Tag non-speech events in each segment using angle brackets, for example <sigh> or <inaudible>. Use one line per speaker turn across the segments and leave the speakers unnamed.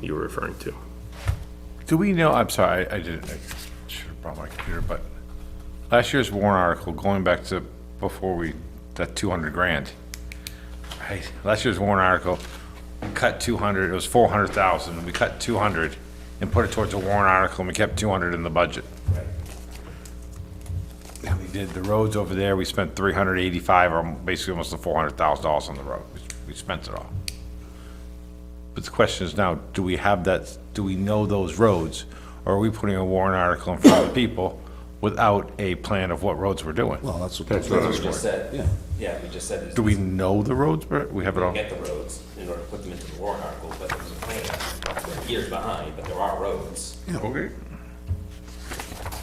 you were referring to.
Do we know, I'm sorry, I I didn't, I should have brought my computer, but last year's warrant article, going back to before we, that 200 grand. I- Last year's warrant article, we cut 200, it was 400,000, and we cut 200 and put it towards a warrant article, and we kept 200 in the budget. And we did the roads over there, we spent 385, or basically almost the $400,000 on the road. We- We spent it all. But the question is now, do we have that, do we know those roads? Or are we putting a warrant article in front of the people without a plan of what roads we're doing?
Well, that's what. That's
We just said, yeah, we just said,
Do we know the roads, Brett? We have it all?
get the roads in order to put them into the warrant article, but there was a plan, we're years behind, but there are roads.
Okay.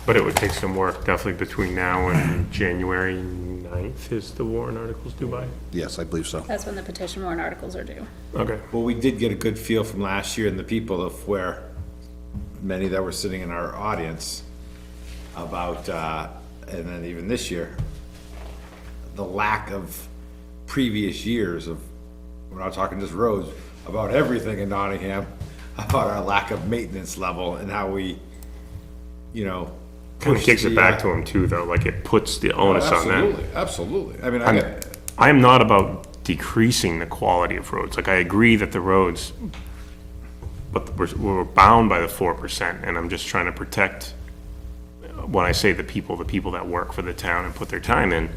But it would take some work definitely between now and January 9th is the warrant articles due by?
Yes, I believe so.
That's when the petition warrant articles are due.
Okay.
Well, we did get a good feel from last year and the people of where many that were sitting in our audience about, uh, and then even this year, the lack of previous years of, we're not talking just roads, about everything in Nottingham, <laughs> about our lack of maintenance level and how we, you know.
Kind of
push
kicks it
the,
back
uh,
to him too, though, like it puts the onus on them.
Absolutely, absolutely. I mean, I,
I'm,
get-
I am not about decreasing the quality of roads. Like, I agree that the roads, but we're, we're bound by the four percent, and I'm just trying to protect, uh, when I say the people, the people that work for the town and put their time in.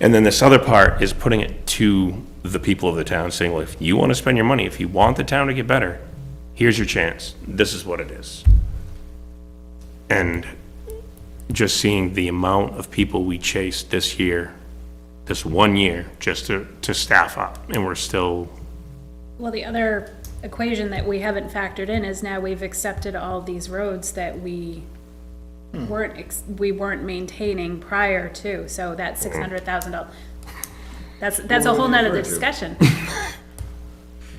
And then this other part is putting it to the people of the town, saying, well, if you want to spend your money, if you want the town to get better, here's your chance. This is what it is. And just seeing the amount of people we chased this year this one year just to, to staff up, and we're still,
Well, the other equation that we haven't factored in is now we've accepted all these roads that we
Hmm.
weren't, ex- we weren't maintaining prior to, so
Hmm.
that six hundred thousand dollars. That's, that's a whole nother
<laughs>
discussion.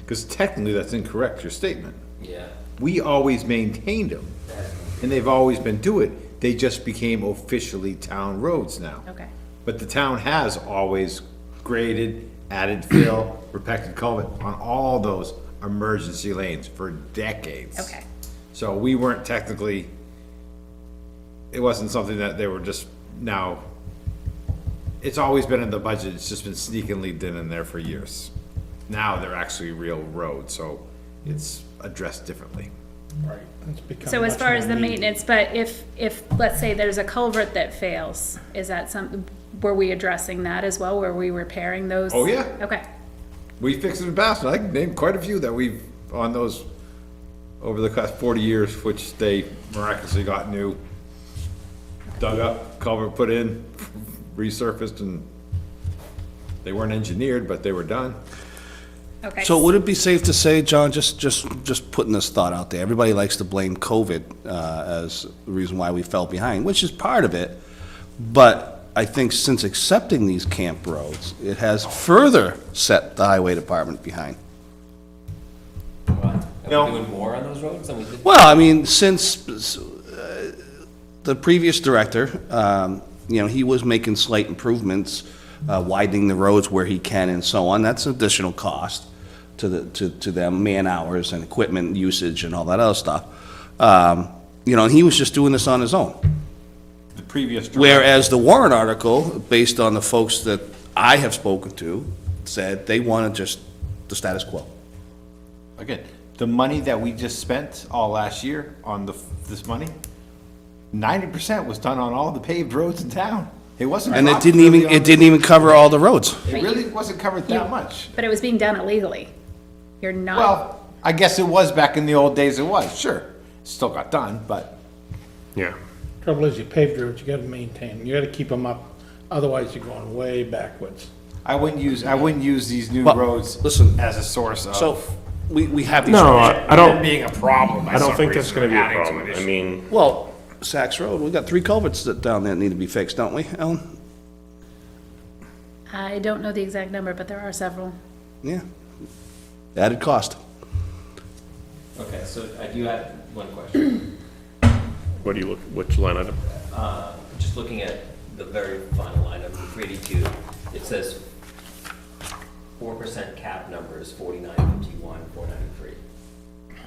because technically that's incorrect, your statement.
Yeah.
we always maintained them, and they've always been do it, they just became officially town roads now.
Okay.
But the town has always graded, added fill, <coughs> repacted culvert on all those emergency lanes for decades.
Okay.
So we weren't technically, it wasn't something that they were just now, it's always been in the budget, it's just been sneakily been in there for years. Now they're actually real roads, so it's addressed differently.
So as far as the maintenance, but if, if, let's say there's a culvert that fails, is that some, were we addressing that as well? Were we repairing those?
Oh, yeah.
Okay,
We fixed it in Bastrop. I can name quite a few that we've, on those, over the past forty years, which they miraculously got new. Dug up, culvert put in, <laughs> resurfaced and they weren't engineered, but they were done.
okay.
So would it be safe to say, John, just, just, just putting this thought out there, everybody likes to blame COVID uh, as the reason why we fell behind, which is part of it. But I think since accepting these camp roads, it has further set the highway department behind.
Are we doing more on those roads than we did?
Well, I mean, since uh, the previous director, um, you know, he was making slight improvements, uh, widening the roads where he can and so on. That's additional cost to the, to, to them, man-hours and equipment usage and all that other stuff. Um, You know, and he was just doing this on his own.
The previous.
Whereas the warrant article, based on the folks that I have spoken to, said they want to just, the status quo.
Again, the money that we just spent all last year on the, this money, ninety percent was done on all the paved roads in town. It wasn't.
And it
dropped
didn't
really
even,
on
it
the-
didn't even cover all the roads.
It really wasn't covered that much.
But it was being done illegally. You're not.
Well, I guess it was back in the old days, it was, sure. Still got done, but
yeah.
Trouble is, you paved roads, you gotta maintain, you gotta keep them up, otherwise you're going way backwards.
I wouldn't use, I wouldn't use these new
Well,
roads
listen,
as a source of.
So, we, we have these.
No, I I
it
don't,
Being a problem.
I don't think that's gonna be a problem. I mean,
Well, Saks Road, we got three culverts that down there that need to be fixed, don't we, Ellen?
I don't know the exact number, but there are several.
Yeah. Added cost.
Okay, so I do have one question. <clears throat>
what do you look, which line item?
Just looking at the very final line of three eighty-two, it says four percent cap number is forty-nine fifty-one, four ninety-three.